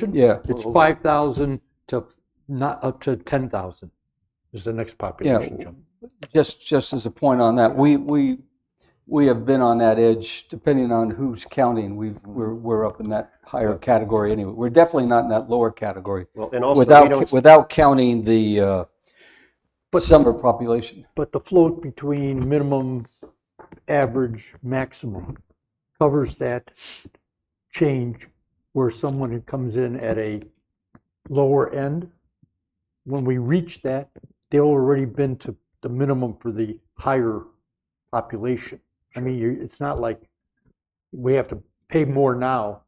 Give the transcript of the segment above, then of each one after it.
population. Yeah. It's Well, five thousand to not up to ten thousand is the next population jump. Just, just as a point on that, we, we, we have been on that edge, depending on who's counting, we've, we're, we're up in that higher category anyway. We're definitely not in that lower category, Well, and also, we without, don't, without counting the, uh, But- summer population. But the float between minimum, average, maximum covers that change where someone who comes in at a lower end, when we reach that, they've already been to the minimum for the higher population. I mean, you- it's not like we have to pay more now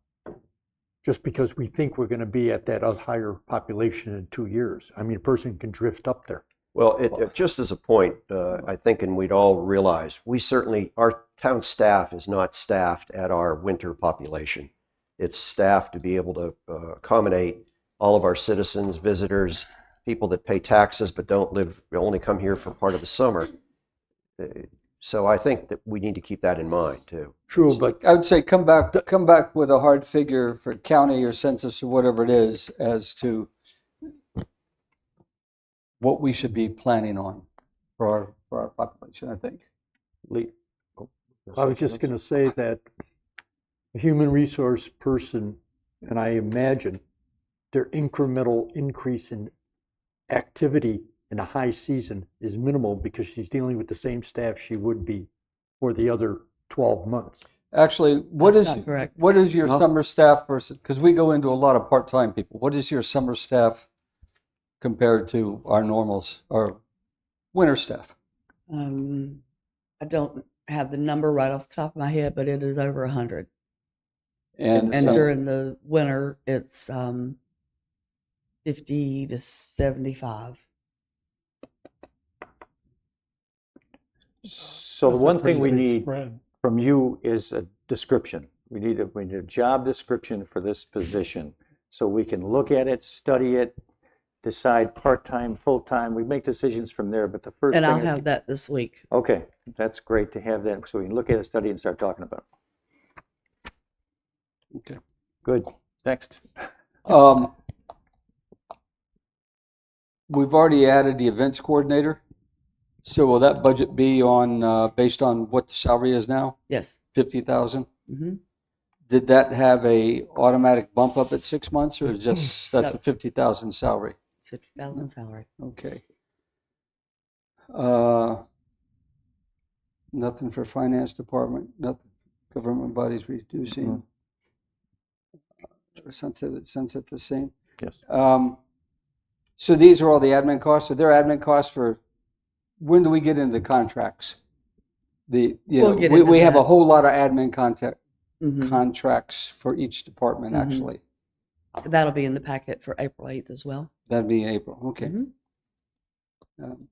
just because we think we're going to be at that other higher population in two years. I mean, a person can drift up there. well, it, it- just as a point, uh, I think, and we'd all realize, we certainly, our town staff is not staffed at our winter population. It's staffed to be able to uh, accommodate all of our citizens, visitors, people that pay taxes but don't live, only come here for part of the summer. Uh, So I think that we need to keep that in mind too. True, but I would say come back, come back with a hard figure for county or census or whatever it is as to what we should be planning on for our, for our population, I think. I was just going to say that a human resource person, and I imagine their incremental increase in activity in a high season is minimal because she's dealing with the same staff she would be for the other 12 months. Actually, what is, That's not correct. what is your No. summer staff versus, because we go into a lot of part-time people. What is your summer staff compared to our normals or winter staff? Um, I don't have the number right off the top of my head, but it is over a hundred. And And so- during the winter, it's um, fifty to seventy-five. So the That's a one thing pretty we big need spread. from you is a description. We need a, we need a job description for this position, so we can look at it, study it, decide part-time, full-time. We make decisions from there, but the first thing. And I'll is- have that this week. Okay, that's great to have that, so we can look at it, study, and start talking about it. Okay. Good, next. Um, We've already added the events coordinator. So will that budget be on, uh, based on what the salary is now, Yes. 50,000? hmm Did that have a automatic bump up at six months or just, that's a No. 50,000 salary? Fifty thousand salary. Okay. Uh, Nothing for finance department, nothing, government bodies reducing. Mm-hmm. Sunset, sunset the same. Yes. Um, So these are all the admin costs, so they're admin costs for, when do we get into the contracts? The, you know, We'll get we, into we have a that. whole lot of admin contact, hmm contracts for each department, Mhm. actually. That'll be in the packet for April eighth as well. That'd be in April, okay. Mhm. Mm-hmm. Um,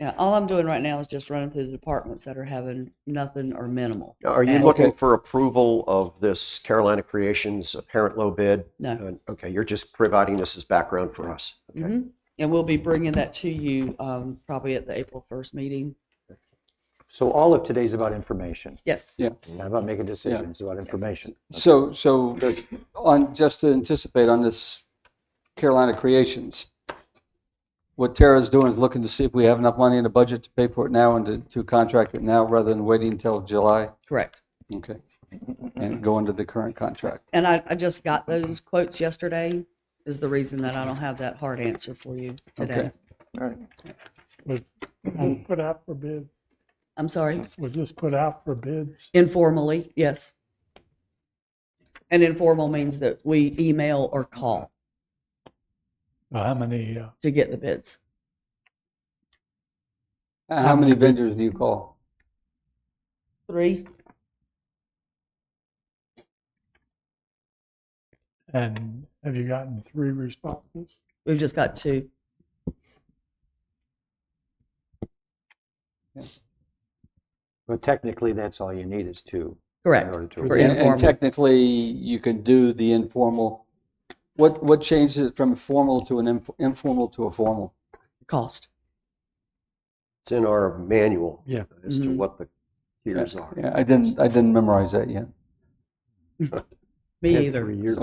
Yeah. All I'm doing right now is just running through the departments that are having nothing or minimal. Now, Are you Okay. looking for approval of this Carolina Creations apparent low bid? No. Uh, Okay, you're just providing this as background for us. Okay. hmm And we'll be bringing that to you um, probably at the April first meeting. So all of today's about information, Yes. Yeah. not about making decisions, it's about information. So, so on, just to anticipate on this Carolina Creations, what Tara's doing is looking to see if we have enough money in the budget to pay for it now and to, to contract it now rather than waiting until July. Correct. Okay. And go under the current contract. And I, I just got those quotes yesterday is the reason that I don't have that hard answer for you today. Okay. All right. Was was put out for bid, I'm sorry, was this put out for bids? informally, yes. And informal means that we email or call Uh, How many, uh, to get the bids. Uh, Um, How many vendors do you call? Three, and have you gotten three responses? we've just got two. But technically, that's all you need is two. In Correct. order to. For And- informal. And technically, you can do the informal. What, what changes it from formal to an inf- informal to a formal? Cost. It's in our manual. Yeah. As to Mhm. what the tiers are. Yeah, I didn't, I didn't memorize that yet. Me Have either. three years.